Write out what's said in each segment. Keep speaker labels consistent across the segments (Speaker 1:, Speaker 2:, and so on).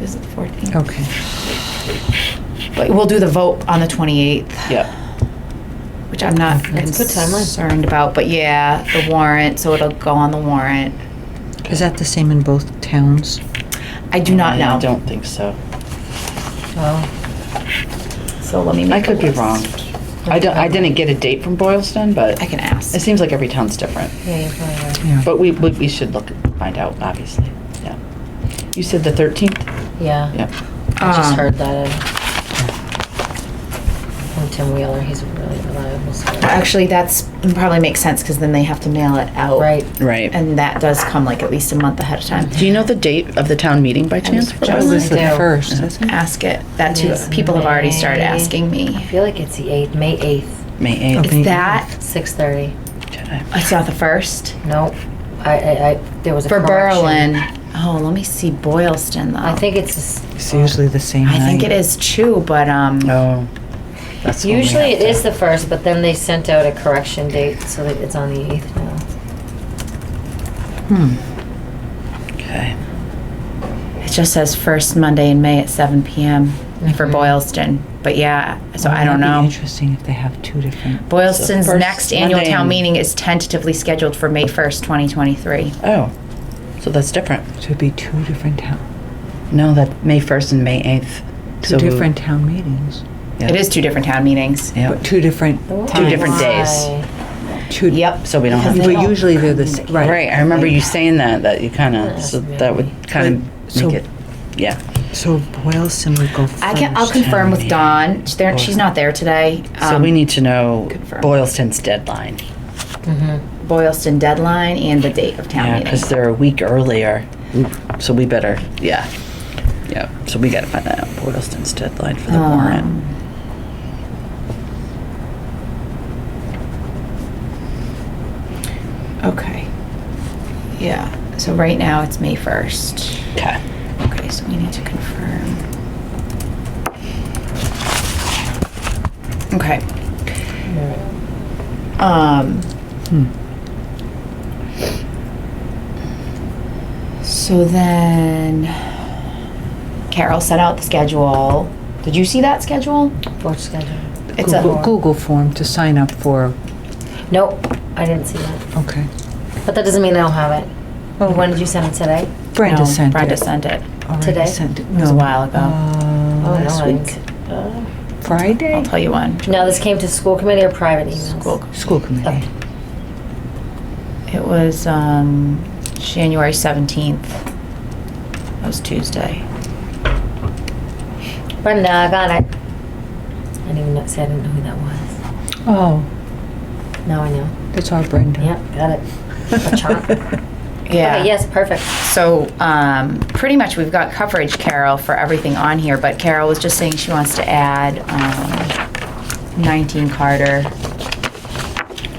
Speaker 1: is it the 14th?
Speaker 2: Okay.
Speaker 1: But we'll do the vote on the 28th,
Speaker 3: Yeah,
Speaker 1: which I'm not
Speaker 2: That's a good timeline.
Speaker 1: concerned about, but yeah, the warrant, so it'll go on the warrant.
Speaker 2: Is that the same in both towns?
Speaker 1: I do not
Speaker 3: I
Speaker 1: know,
Speaker 3: don't think so.
Speaker 2: Oh.
Speaker 1: so let me
Speaker 3: I
Speaker 1: make a
Speaker 3: could be
Speaker 1: list.
Speaker 3: wrong. I don't, I didn't get a date from Boylston, but
Speaker 1: I can ask.
Speaker 3: it seems like every town's different.
Speaker 4: Yeah, you're probably right.
Speaker 2: Yeah.
Speaker 3: But we, we we should look, find out, obviously, yeah. You said the thirteenth?
Speaker 4: Yeah.
Speaker 3: Yeah,
Speaker 4: I just
Speaker 1: Um,
Speaker 4: heard that. uh, From Tim Wheeler, he's a really reliable. source.
Speaker 1: Actually, that's probably makes sense because then they have to mail it out.
Speaker 4: Oh. Right.
Speaker 3: right.
Speaker 1: And that does come like at least a month ahead of time.
Speaker 3: Do you know the date of the town meeting by chance?
Speaker 1: just That
Speaker 2: It was the
Speaker 4: Yeah.
Speaker 2: first, isn't it?
Speaker 1: Ask it. That too.
Speaker 4: Yes.
Speaker 1: People have already started asking
Speaker 4: I
Speaker 1: me.
Speaker 4: feel like it's the eighth, May eighth,
Speaker 3: May
Speaker 2: Okay.
Speaker 3: eighth.
Speaker 1: Is that,
Speaker 4: six thirty.
Speaker 1: it's not the first?
Speaker 4: Nope. I, I, I, there was a
Speaker 1: For
Speaker 4: correction.
Speaker 1: Berlin. Oh, let me see Boylston though.
Speaker 4: I think it's, the s-
Speaker 2: It's usually the same
Speaker 1: I think it
Speaker 2: night.
Speaker 1: is too, but um,
Speaker 3: Oh. that's when we
Speaker 4: usually
Speaker 3: have
Speaker 4: it
Speaker 3: to-
Speaker 4: is the first, but then they sent out a correction date, so that it's on the eighth now.
Speaker 2: Hmm.
Speaker 3: Okay,
Speaker 1: it just says first Monday in May at seven PM
Speaker 3: Mm-hmm.
Speaker 1: for
Speaker 4: Mhm.
Speaker 1: Boylston. But yeah, so
Speaker 2: Well,
Speaker 1: I don't
Speaker 2: that'd be
Speaker 1: know.
Speaker 2: Interesting if they have two different.
Speaker 1: Boylston's
Speaker 3: So first
Speaker 1: next annual
Speaker 3: Monday
Speaker 1: town
Speaker 3: in-
Speaker 1: meeting is tentatively scheduled for May first, twenty twenty-three.
Speaker 3: oh, so that's different.
Speaker 2: So it'd be two different town,
Speaker 3: No, that, May first and May eighth.
Speaker 2: two different town meetings,
Speaker 1: It is two different town meetings.
Speaker 3: Yeah.
Speaker 2: but two different.
Speaker 4: Oh,
Speaker 3: Two different days.
Speaker 4: Why?
Speaker 2: Two.
Speaker 1: Yep.
Speaker 3: So we don't have.
Speaker 1: Because
Speaker 3: to-
Speaker 1: they
Speaker 2: But usually they're the, s- right.
Speaker 3: Right, I remember you saying that, that you kind of, so that would kind
Speaker 2: But-
Speaker 3: of
Speaker 2: so-
Speaker 3: make it, yeah.
Speaker 2: So Boylston would go first.
Speaker 1: I can, I'll confirm with Dawn. She's there- she's not there today.
Speaker 3: So
Speaker 1: Um,
Speaker 3: we need to know
Speaker 1: confirm.
Speaker 3: Boylston's deadline.
Speaker 1: Boylston deadline and the date of town
Speaker 3: Yeah,
Speaker 1: meeting.
Speaker 3: because they're a week earlier,
Speaker 2: Mm.
Speaker 3: so we better, yeah. Yeah, so we gotta find out Boylston's deadline for the
Speaker 1: Um,
Speaker 3: warrant.
Speaker 1: Okay. Yeah, so right now it's May 1st.
Speaker 3: Okay.
Speaker 1: Okay, so we need to confirm. Okay. Um,
Speaker 2: Hmm.
Speaker 1: so then Carol sent out the schedule. Did you see that schedule?
Speaker 4: Board schedule.
Speaker 1: It's a-
Speaker 2: Google, Google form to sign up for,
Speaker 4: Nope, I didn't see that.
Speaker 2: okay.
Speaker 4: But that doesn't mean I don't have it.
Speaker 2: Oh.
Speaker 4: When did you send it today?
Speaker 2: Brenda
Speaker 1: No,
Speaker 2: sent it.
Speaker 1: Brenda sent it.
Speaker 2: Already
Speaker 4: today?
Speaker 2: sent it.
Speaker 1: was a
Speaker 2: No.
Speaker 1: while ago.
Speaker 2: Uh,
Speaker 4: Oh, no,
Speaker 2: last
Speaker 4: I didn't
Speaker 2: week.
Speaker 4: see- uh,
Speaker 1: I'll
Speaker 2: Friday?
Speaker 1: tell you when.
Speaker 4: No, this came to school committee or private emails?
Speaker 1: School.
Speaker 2: School committee.
Speaker 1: It was um, January 17th. That was Tuesday.
Speaker 4: Brenda, I got it. I didn't even know, see, I didn't know who that was.
Speaker 2: Oh,
Speaker 4: Now I know.
Speaker 2: that's our Brenda.
Speaker 4: Yep, got it. A chart.
Speaker 1: Yeah.
Speaker 4: Okay, yes, perfect.
Speaker 1: So um, pretty much we've got coverage, Carol, for everything on here, but Carol was just saying she wants to add um, 19 Carter.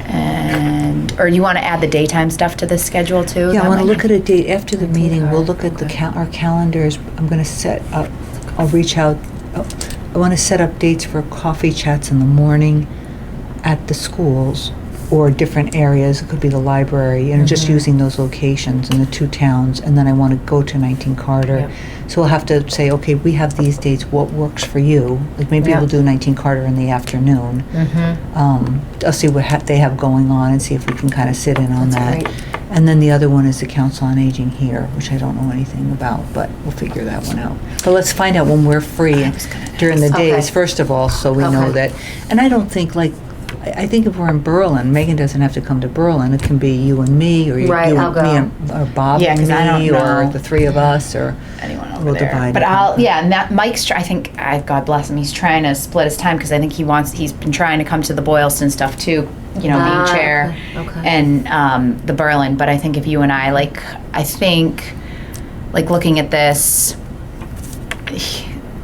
Speaker 1: And, or you want to add the daytime stuff to this schedule too?
Speaker 2: Yeah, I
Speaker 1: That
Speaker 2: want to
Speaker 1: might-
Speaker 2: look at a date after the meeting. We'll
Speaker 4: hard.
Speaker 2: look at the cal, our calendars. I'm gonna set up, I'll reach out. oh, I want to set up dates for coffee chats in the morning at the schools or different areas. It could be the library and just using those locations in the two towns. And then I want to go to 19 Carter. So we'll have to say, okay, we have these dates. What works for you? Like maybe
Speaker 4: Yeah.
Speaker 2: we'll do 19 Carter in the afternoon.
Speaker 4: Mm-hmm.
Speaker 2: Um, I'll see what ha- they have going on and see if we can kind of sit in on
Speaker 4: That's
Speaker 2: that. And then the other one is the Council on Aging here, which I don't know anything about, but we'll figure that one out. But let's find out when we're free during the
Speaker 4: Okay.
Speaker 2: days, first of all, so we know
Speaker 4: Okay.
Speaker 2: that. And I don't think, like, I I think if we're in Berlin, Megan doesn't have to come to Berlin. It can be you and me, or you you
Speaker 4: Right, I'll
Speaker 2: and me,
Speaker 4: go.
Speaker 2: and- or Bob
Speaker 1: Yeah, 'cause I
Speaker 2: and me,
Speaker 1: don't
Speaker 2: or
Speaker 1: know.
Speaker 2: the three of us, or,
Speaker 1: anyone over
Speaker 2: We'll
Speaker 1: there.
Speaker 2: divide
Speaker 1: but
Speaker 2: it.
Speaker 1: I'll yeah, and that Mike's. Try, I think I God bless him. He's trying to split his time because I think he wants. He's been trying to come to the Boylston stuff too. You know,
Speaker 4: Ah,
Speaker 1: being chair
Speaker 4: okay, okay.
Speaker 1: and um, the Berlin. But I think if you and I like, I think like looking at this.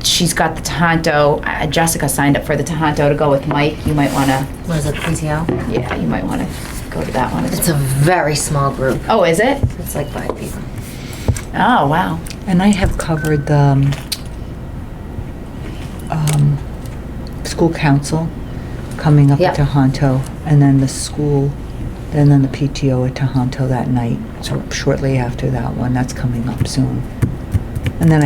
Speaker 1: She's got the Tonto. Uh, Jessica signed up for the Tonto to go with Mike. You might want to,
Speaker 4: What is it, PTO?
Speaker 1: yeah, you might want to go to that one.
Speaker 4: It's
Speaker 1: As
Speaker 4: a very small group.
Speaker 1: Oh, is it?
Speaker 4: It's like five people.
Speaker 1: Oh, wow.
Speaker 2: and I have covered the um, um, school council coming up at
Speaker 4: Yeah.
Speaker 2: Tohoto, and then the school, and then the PTO at Tohoto that night, so shortly after that one, that's coming up soon. And then I